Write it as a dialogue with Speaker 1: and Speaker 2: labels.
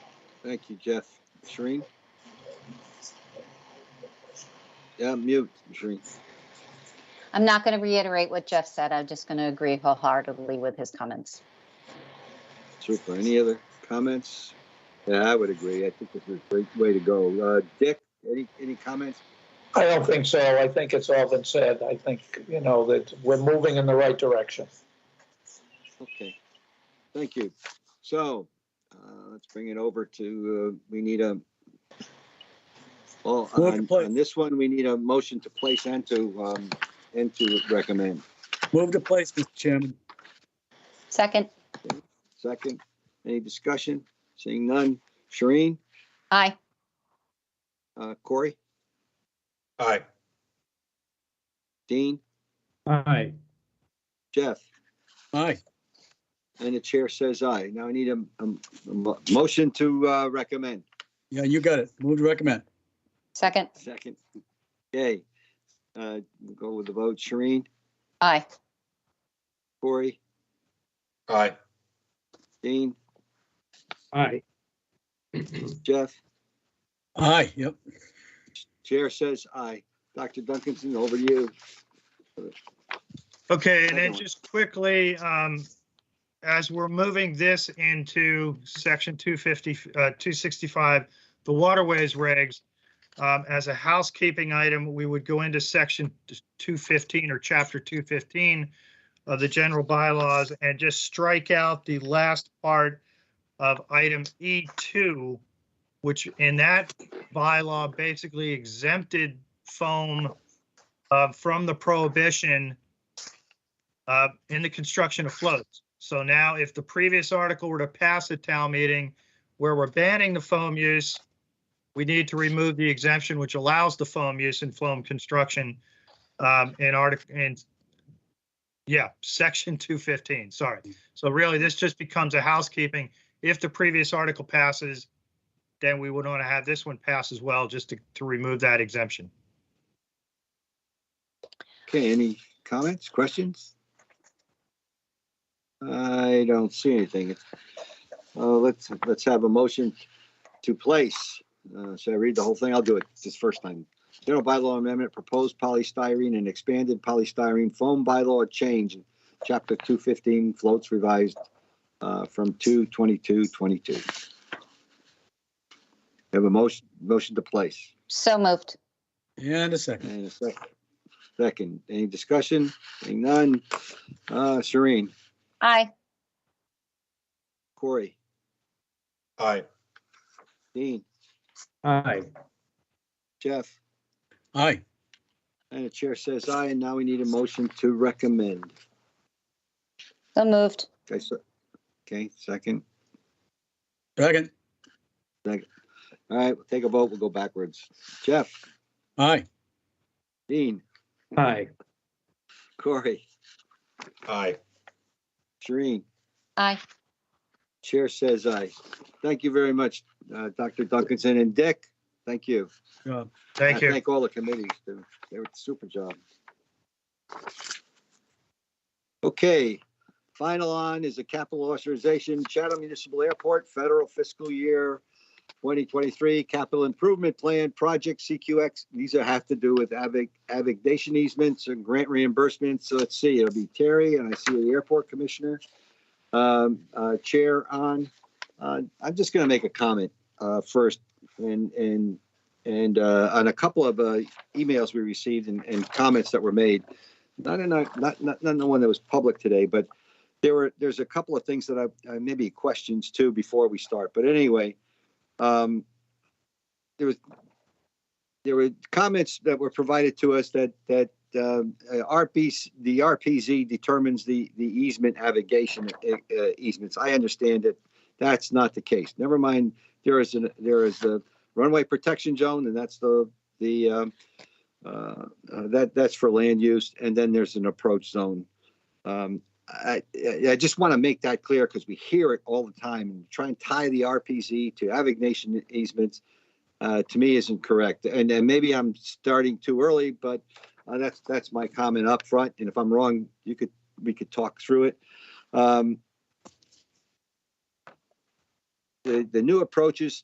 Speaker 1: Thank you, Jeff. Shereen? Yeah, mute, Shereen.
Speaker 2: I'm not going to reiterate what Jeff said. I'm just going to agree wholeheartedly with his comments.
Speaker 1: Super. Any other comments? Yeah, I would agree. I think this is a great way to go. Uh, Dick, any, any comments?
Speaker 3: I don't think so. I think it's all been said. I think, you know, that we're moving in the right direction.
Speaker 1: Okay, thank you. So, uh, let's bring it over to, uh, we need a, well,
Speaker 4: Move to
Speaker 1: on,
Speaker 4: place.
Speaker 1: on this one, we need a motion to place and to, um, and to recommend.
Speaker 4: Move to place, Mr. Chairman.
Speaker 2: Second,
Speaker 1: Second, any discussion? Seeing none. Shereen,
Speaker 2: aye.
Speaker 1: uh, Corey,
Speaker 5: Aye.
Speaker 1: Dean,
Speaker 6: Aye.
Speaker 1: Jeff,
Speaker 4: Aye.
Speaker 1: and the chair says aye. Now I need a, a, a mo- motion to, uh, recommend.
Speaker 4: Yeah, you got it. Move to recommend.
Speaker 2: Second,
Speaker 1: Second. Okay, uh, we'll go with the vote. Shereen,
Speaker 2: aye.
Speaker 1: Corey,
Speaker 5: Aye.
Speaker 1: Dean,
Speaker 6: Aye.
Speaker 1: Jeff,
Speaker 4: Aye, yep.
Speaker 1: chair says aye. Dr. Duncanson, over to you.
Speaker 7: Okay, and
Speaker 1: Second
Speaker 7: then
Speaker 1: one.
Speaker 7: just quickly, um, as we're moving this into section 250, uh, 265, the waterways regs, um, as a housekeeping item, we would go into section 215 or chapter 215 of the general bylaws and just strike out the last part of item E2, which in that bylaw basically exempted foam uh, from the prohibition uh, in the construction of floats. So now if the previous article were to pass at town meeting where we're banning the foam use, we need to remove the exemption which allows the foam use in foam construction um, in article, in, yeah, section 215, sorry. So really, this just becomes a housekeeping. If the previous article passes, then we would want to have this one pass as well, just to, to remove that exemption.
Speaker 1: Okay, any comments, questions? I don't see anything. Uh, let's, let's have a motion to place. Uh, should I read the whole thing? I'll do it this first time. General bylaw amendment, proposed polystyrene and expanded polystyrene foam bylaw change, chapter two fifteen floats revised, uh, from two twenty-two twenty-two. Have a motion, motion to place.
Speaker 2: So moved.
Speaker 4: And a second.
Speaker 1: And a second. Second, any discussion? Seeing none. Uh, Shereen,
Speaker 2: Aye.
Speaker 1: Corey,
Speaker 5: Aye.
Speaker 1: Dean,
Speaker 6: Aye.
Speaker 1: Jeff,
Speaker 4: Aye.
Speaker 1: and the chair says aye, and now we need a motion to recommend.
Speaker 2: So moved.
Speaker 1: Okay, so, okay, second.
Speaker 4: Second.
Speaker 1: All right, we'll take a vote. We'll go backwards. Jeff,
Speaker 4: Aye.
Speaker 1: Dean,
Speaker 6: Aye.
Speaker 1: Corey,
Speaker 5: Aye.
Speaker 1: Shereen,
Speaker 2: Aye.
Speaker 1: chair says aye. Thank you very much, uh, Dr. Duncanson and Dick. Thank you.
Speaker 4: Uh,
Speaker 1: I
Speaker 7: Thank you.
Speaker 1: Thank all the committees. They they were super job. Okay, final on is the capital authorization Chatham Municipal Airport Federal Fiscal Year 2023 Capital Improvement Plan Project CQX. These are have to do with avic, avigdation easements and grant reimbursements. So let's see, it'll be Terry and I see the airport commissioner, um, uh, chair on. Uh, I'm just gonna make a comment, uh, first and, and and uh, on a couple of uh, emails we received and, and comments that were made, not in our, not, not not in the one that was public today, but there were there's a couple of things that I, I maybe questions too before we start. But anyway, um, there was there were comments that were provided to us that that um, uh, RPC the RPZ determines the the easement navigation uh, uh, easements. I understand that that's not the case. Never mind. There is an there is a runway protection zone, and that's the, the, um, uh, uh, that, that's for land use, and then there's an approach zone. Um, I, I I just want to make that clear because we hear it all the time, and try and tie the RPZ to avignation easements, uh, to me isn't correct. And then maybe I'm starting too early, but, uh, that's, that's my comment up front, and if I'm wrong, you could, we could talk through it. Um, the, the new approaches